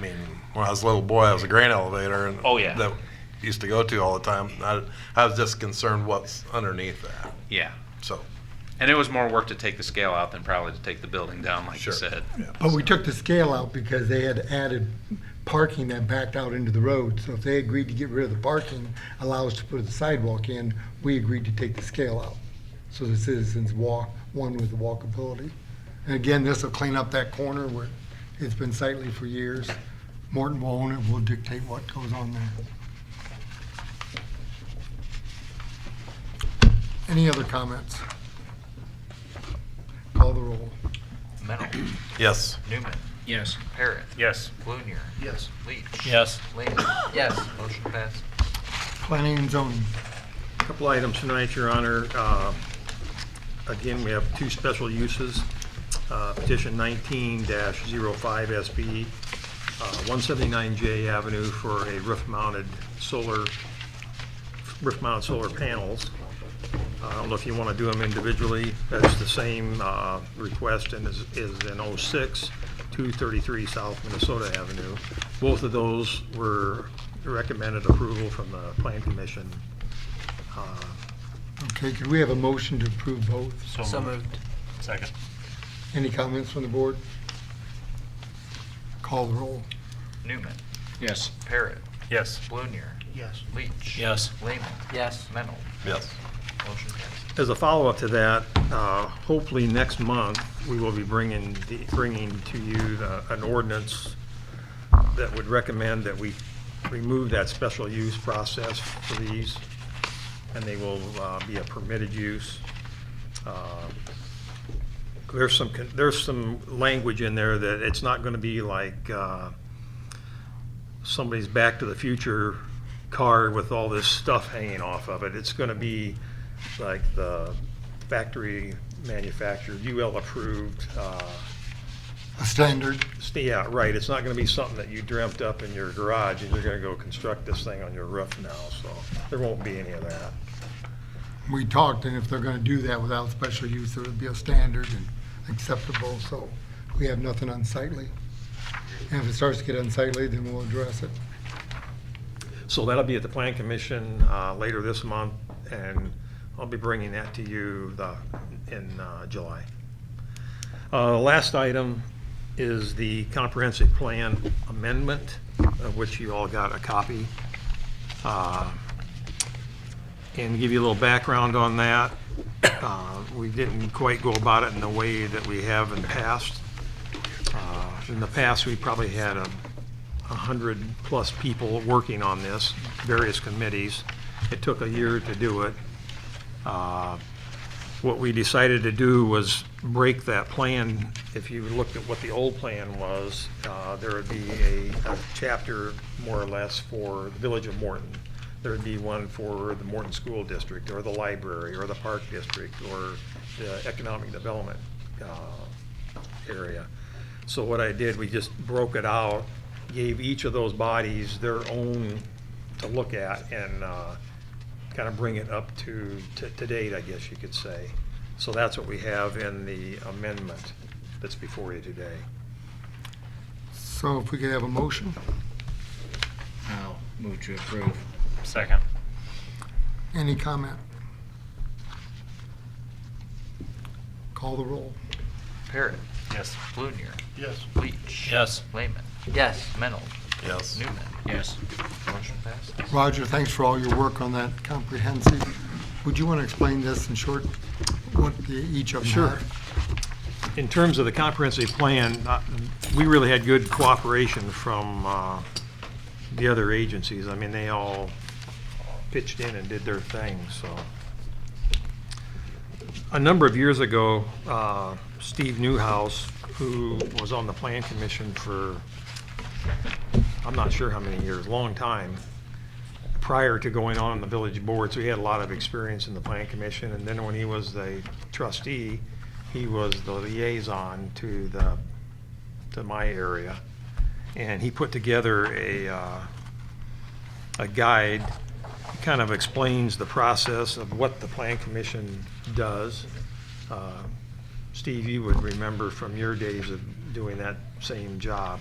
when I was a little boy, I was a grain elevator and. Oh, yeah. That used to go to all the time. I, I was just concerned what's underneath that, Yeah. so. And it was more work to take the scale out than probably to take the building down, like you Sure. said. But we took the scale out because they had added parking that backed out into the road. So if they agreed to get rid of the parking, allow us to put the sidewalk in, we agreed to take the scale out. So the citizens walk, one with the walkability. And again, this will clean up that corner where it's been sightly for years. Morton will own it, will dictate what goes on there. Any other comments? Call the roll. Mennel. Yes. Newman. Yes. Parrot. Yes. Blunier. Yes. Leach. Yes. Lehman. Yes. Motion passed. Planning and zoning. Couple items tonight, Your Honor. Uh, Again, we have two special uses. Uh, Petition 19-05SB, uh, 179J Avenue for a roof-mounted solar, roof-mounted solar panels. I don't know if you want to do them individually. That's the same uh, request and is is in 06, 233 South Minnesota Avenue. Both of those were recommended approval from the Plan Commission Okay, could we have a motion to approve both? So moved. Second. Any comments from the board? Call the roll. Newman. Yes. Parrot. Yes. Blunier. Yes. Leach. Yes. Lehman. Yes. Mennel. Yes. Motion passed. As a follow-up to that, uh, hopefully next month, we will be bringing, the- bringing to you the- an ordinance that would recommend that we remove that special use process for these, and they will uh, be a permitted use. Uh, There's some, con- there's some language in there that it's not going to be like uh, somebody's Back to the Future car with all this stuff hanging off of it. It's going to be like the factory manufactured, UL approved, uh, A standard. so, Yeah, right, it's not gonna be something that you dreamt up in your garage, and you're gonna go construct this thing on your roof now, so there won't be any of that. We talked, and if they're gonna do that without special use, there would be a standard and acceptable, so we have nothing unsightly. And if it starts to get unsightly, then we'll address it. So that'll be at the Plan Commission uh, later this month, and I'll be bringing that to you the- in uh, July. Uh, The Last item is the Comprehensive Plan Amendment, of which you all got a copy. Uh, And to give you a little background on that. uh, We didn't quite go about it in the way that we have in the past. Uh, In the past, we probably had a 100-plus people working on this, various committees. It took a year to do it. Uh, What we decided to do was break that plan. If you looked at what the old plan was, uh, there would be a a chapter, more or less, for the Village of Morton. There would be one for the Morton School District, or the library, or the Park District, or the Economic Development uh, area. So what I did, we just broke it out, gave each of those bodies their own to look at and kind of bring it up to, to to date, I guess you could say. So that's what we have in the amendment that's before you today. So if we could have a motion, I'll move to approve. Second. any comment? Call the roll. Parrot. Yes. Blunier. Yes. Leach. Yes. Lehman. Yes. Mennel. Yes. Newman. Yes. Motion passed. Roger, thanks for all your work on that comprehensive. Would you wanna explain this in short, what the- each of them Sure. have? in terms of the comprehensive plan, uh, we really had good cooperation from uh, the other agencies. I mean, they all pitched in and did their thing, so. A number of years ago, uh, Steve Newhouse, who was on the Plan Commission for, I'm not sure how many years, long time, prior to going on the village board, so he had a lot of experience in the plan commission. And then when he was the trustee, he was the liaison to the, to my area. And he put together a, uh, a guide, kind of explains the process of what the plan commission does. Uh, Steve, you would remember from your days of doing that same job.